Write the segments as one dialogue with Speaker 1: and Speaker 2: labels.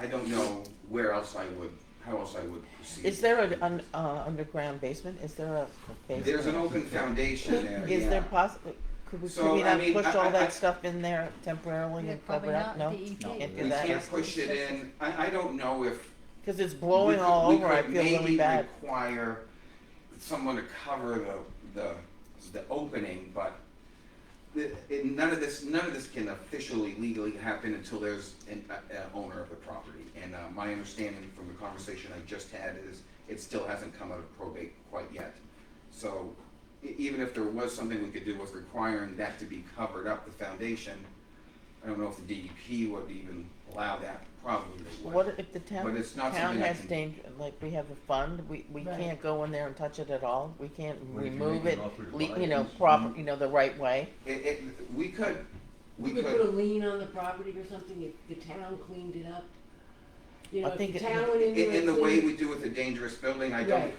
Speaker 1: I don't know where else I would, how else I would proceed.
Speaker 2: Is there an un, uh, underground basement? Is there a basement?
Speaker 1: There's an open foundation there,
Speaker 2: Is there
Speaker 1: yeah.
Speaker 2: possibly, could we, could
Speaker 1: So,
Speaker 2: we
Speaker 1: I
Speaker 2: not
Speaker 1: mean,
Speaker 2: push
Speaker 1: I- I-
Speaker 2: all
Speaker 1: I-
Speaker 2: that stuff in there temporarily
Speaker 3: Yeah,
Speaker 2: and
Speaker 3: probably
Speaker 2: cover it up?
Speaker 3: not
Speaker 2: No?
Speaker 3: the E
Speaker 4: No.
Speaker 3: EP.
Speaker 2: Can't
Speaker 1: We
Speaker 2: do that.
Speaker 1: can't push it in, I, I don't know if.
Speaker 2: Because it's
Speaker 1: we
Speaker 2: blowing
Speaker 1: could-
Speaker 2: all
Speaker 1: we
Speaker 2: over, I
Speaker 1: could
Speaker 2: feel really
Speaker 1: maybe
Speaker 2: bad.
Speaker 1: Require someone to cover the, the, the opening, but the, it, none of this, none of this can officially legally happen until there's an, a, a owner of the property. And, uh, my understanding from the conversation I just had is it still hasn't come out of probate quite yet. So e- even if there was something we could do with requiring that to be covered up, the foundation, I don't know if the DEP would even allow that, probably they would.
Speaker 2: What if the town,
Speaker 1: But it's not
Speaker 2: town
Speaker 1: something I
Speaker 2: has
Speaker 1: can-
Speaker 2: danger, like we have a fund, we, we
Speaker 3: Right.
Speaker 2: can't go in there and touch it at all? We can't
Speaker 4: Well, you can
Speaker 2: remove
Speaker 4: make
Speaker 2: it,
Speaker 4: an offer to
Speaker 2: le-
Speaker 4: buy
Speaker 2: you
Speaker 4: it.
Speaker 2: know,
Speaker 1: Mm-hmm.
Speaker 2: proper, you know, the right way?
Speaker 1: It, it, we could, we
Speaker 5: We could put a
Speaker 1: could,
Speaker 5: lien on the property or something if the town cleaned it up. You
Speaker 2: I
Speaker 5: know, if
Speaker 2: think
Speaker 5: the
Speaker 2: it-
Speaker 5: town went in
Speaker 1: in,
Speaker 5: there
Speaker 1: in
Speaker 5: and
Speaker 1: the way
Speaker 5: cleaned.
Speaker 1: we do with the dangerous building, I don't,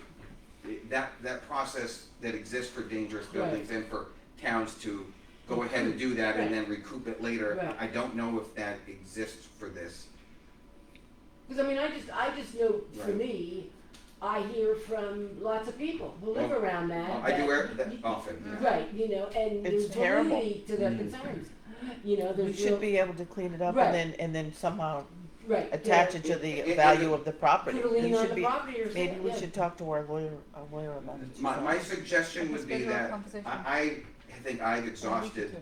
Speaker 1: that, that process that exists for dangerous buildings and for towns to go ahead and do that and then recoup it later,
Speaker 5: Right.
Speaker 1: I don't know if that exists for this.
Speaker 5: Because I mean, I just, I just know for
Speaker 1: Right.
Speaker 5: me, I hear from lots of people who live
Speaker 1: Well,
Speaker 5: around that.
Speaker 1: I do
Speaker 5: that-
Speaker 1: air that often, yeah.
Speaker 5: Right, you know, and
Speaker 2: It's
Speaker 5: there's
Speaker 2: terrible.
Speaker 5: validity to their
Speaker 4: Mm.
Speaker 5: concerns. You know,
Speaker 2: We
Speaker 5: there's real,
Speaker 2: should be able to clean it up
Speaker 5: Right.
Speaker 2: and then, and then somehow
Speaker 5: right. yeah.
Speaker 2: attach it to
Speaker 1: It-
Speaker 2: the
Speaker 1: it-
Speaker 2: value
Speaker 1: it-
Speaker 2: of the property.
Speaker 5: Put a lien
Speaker 2: We
Speaker 5: on
Speaker 2: should
Speaker 5: the
Speaker 2: be,
Speaker 5: property or something,
Speaker 2: maybe we
Speaker 5: yeah.
Speaker 2: should talk to our lawyer, our lawyer about it.
Speaker 1: My, my suggestion would be
Speaker 3: Schedule a
Speaker 1: that,
Speaker 3: conversation.
Speaker 1: I, I think I've exhausted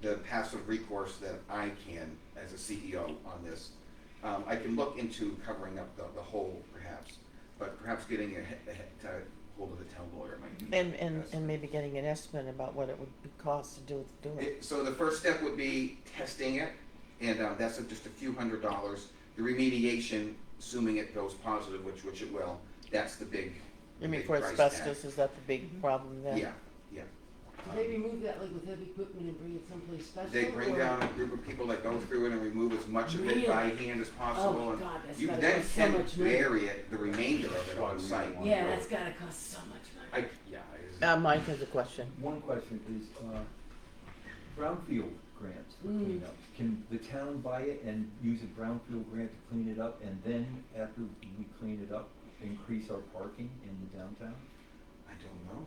Speaker 1: the passive recourse that I can as a CEO on this. Um, I can look into covering up the, the whole perhaps, but perhaps getting a, he- a, he- to hold of the town lawyer might be.
Speaker 2: And, and,
Speaker 1: best.
Speaker 2: and maybe getting an estimate about what it would be cost to do, do it.
Speaker 1: It- So the first step would be testing it, and uh, that's just a few hundred dollars. The remediation, assuming it goes positive, which, which it will, that's the big,
Speaker 2: You mean
Speaker 1: big
Speaker 2: for
Speaker 1: price tag.
Speaker 2: asbestos, is that the big problem then?
Speaker 1: Yeah, yeah.
Speaker 5: Do They remove that like with heavy equipment and bring it someplace special.
Speaker 1: They bring
Speaker 5: or-
Speaker 1: down a group of people that go through it and remove as much of it by hand as possible.
Speaker 5: Oh,
Speaker 1: and
Speaker 5: God, that's
Speaker 1: You
Speaker 5: gotta
Speaker 1: then
Speaker 5: cost so
Speaker 1: can
Speaker 5: much money.
Speaker 1: bury it, the remainder of it on site.
Speaker 5: Yeah, that's gotta cost so much
Speaker 1: I,
Speaker 5: money.
Speaker 1: yeah. I-
Speaker 2: Uh, Mike has a question.
Speaker 4: One question is, uh, brownfield grants for
Speaker 5: Mm.
Speaker 4: cleanup. Can the town buy it and use a brownfield grant to clean it up and then after we clean it up, increase our parking in the downtown?
Speaker 1: I don't know.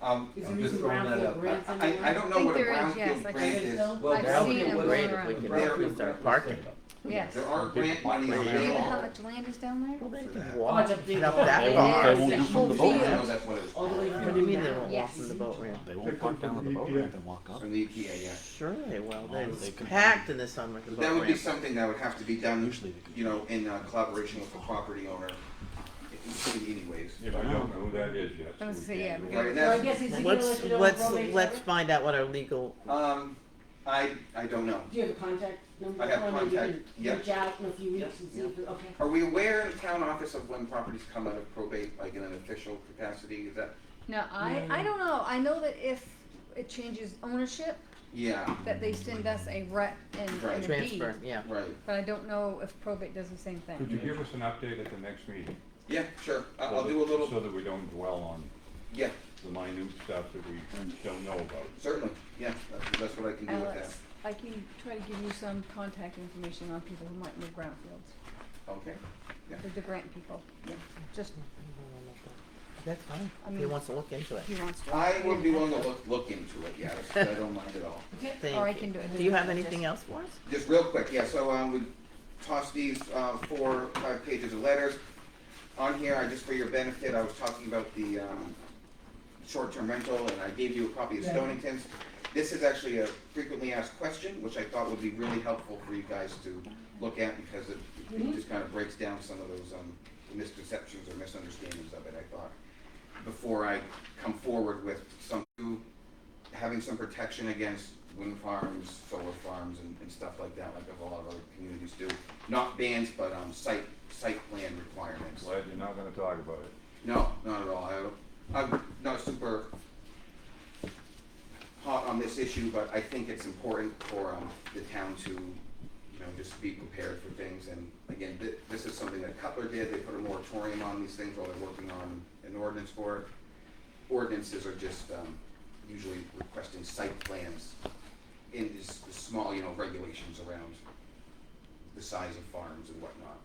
Speaker 1: Um,
Speaker 5: Is
Speaker 4: I'm
Speaker 5: there
Speaker 4: just
Speaker 5: even
Speaker 4: throwing that
Speaker 5: brownfield
Speaker 4: out.
Speaker 5: grants
Speaker 1: I, I- I
Speaker 5: anywhere?
Speaker 1: don't know
Speaker 3: think
Speaker 1: what a
Speaker 3: there is, yes,
Speaker 1: brownfield
Speaker 3: like I
Speaker 1: grant
Speaker 5: said,
Speaker 1: is.
Speaker 5: no.
Speaker 4: Well,
Speaker 3: I've
Speaker 4: brownfield
Speaker 3: seen it
Speaker 4: was-
Speaker 3: going around.
Speaker 2: We could
Speaker 4: brownfield
Speaker 2: increase our
Speaker 4: grant was
Speaker 2: parking.
Speaker 4: set up.
Speaker 3: Yes.
Speaker 1: There are grant monies
Speaker 3: Do you know how
Speaker 1: available.
Speaker 3: much land is down there?
Speaker 2: Well, they
Speaker 1: For that.
Speaker 2: can walk
Speaker 5: Oh, it's a
Speaker 2: it up
Speaker 5: big
Speaker 2: that far.
Speaker 5: hole. Yeah.
Speaker 6: They won't do from the
Speaker 1: I
Speaker 6: boat
Speaker 5: Yeah.
Speaker 1: know
Speaker 6: ramp.
Speaker 1: that's what it's
Speaker 5: All the way
Speaker 1: called.
Speaker 2: What
Speaker 5: from
Speaker 2: do you mean they
Speaker 5: now.
Speaker 2: won't walk
Speaker 3: Yes.
Speaker 2: from the boat ramp?
Speaker 6: They
Speaker 4: They're
Speaker 6: won't park down on the E boat
Speaker 4: coming
Speaker 6: ramp and walk up.
Speaker 1: From the EPA, yeah.
Speaker 2: Sure they will,
Speaker 6: No,
Speaker 2: They-
Speaker 6: they
Speaker 2: it's
Speaker 6: can-
Speaker 2: packed in the summer, the
Speaker 1: But That
Speaker 2: boat
Speaker 1: would be
Speaker 2: ramp.
Speaker 1: something that would have to be done,
Speaker 6: Usually they can-
Speaker 1: you know, in uh, collaboration with the property owner, in- in any ways.
Speaker 7: If I don't know who that is yet.
Speaker 3: I was gonna say, yeah, we
Speaker 1: Right, and
Speaker 5: So I
Speaker 1: that's-
Speaker 5: guess he's gonna let
Speaker 2: Let's,
Speaker 5: you know what
Speaker 2: let's,
Speaker 5: probate's
Speaker 2: let's
Speaker 5: over?
Speaker 2: find out what our legal,
Speaker 1: Um, I, I don't know.
Speaker 5: Do you have a contact number?
Speaker 1: I have
Speaker 5: for him? You
Speaker 1: contact,
Speaker 5: can
Speaker 1: yeah.
Speaker 5: Reach out in a few weeks and see if, it- okay.
Speaker 1: Are we aware in the town office of when properties come out of probate, like in an official capacity, is that,
Speaker 3: No, I, I don't know. I know that if it changes ownership,
Speaker 1: yeah,
Speaker 3: that they send us a rep and,
Speaker 1: Right.
Speaker 3: and a deed.
Speaker 2: transfer, yeah.
Speaker 1: right,
Speaker 3: But I don't know if probate does the same
Speaker 7: Could
Speaker 3: thing.
Speaker 7: you give us an update at the next meeting?
Speaker 1: yeah, sure, I- I'll
Speaker 7: So
Speaker 1: do a
Speaker 7: that- So
Speaker 1: little,
Speaker 7: that we don't dwell on
Speaker 1: yeah,
Speaker 7: the minute stuff that we don't know about.
Speaker 1: certainly, yeah, that's, that's what I can do with that,
Speaker 3: Alex, I can try to give you some contact information on people who might move brownfields,
Speaker 1: okay?
Speaker 3: the- the grant people.
Speaker 1: Yeah.
Speaker 3: Just,
Speaker 2: That's fine,
Speaker 3: I
Speaker 2: if he
Speaker 3: mean-
Speaker 2: wants to look into it.
Speaker 3: he wants to.
Speaker 1: I would be willing to look, look into it, yeah, that's- I don't mind at all.
Speaker 2: Thank
Speaker 3: Or I
Speaker 2: you.
Speaker 3: can do it.
Speaker 2: Do you have anything else for us?
Speaker 1: Just real quick, yeah, so, um, we tossed these, uh, four, five pages of letters. On here, I, just for your benefit, I was talking about the, um, short-term rental, and I gave you a copy of
Speaker 5: Yeah.
Speaker 1: Stonington's. This is actually a frequently asked question, which I thought would be really helpful for you guys to look at, because it, it
Speaker 5: Mhm.
Speaker 1: just kind of breaks down some of those, um, misconceptions or misunderstandings of it, I thought. Before I come forward with some new having some protection against wind farms, solar farms, and, and stuff like that, like a lot of other communities do. Not bans, but, um, site, site plan requirements.
Speaker 7: Glad you're not gonna talk about it.
Speaker 1: No, not at all, I, don't- I'm not super hot on this issue, but I think it's important for, um, the town to, you know, just be prepared for things, and again, thi- this is something that Cutler did, they put a moratorium on these things while they're working on an ordinance for it. Ordinances are just, um, usually requesting site plans in this, small, you know, regulations around the size of farms and whatnot.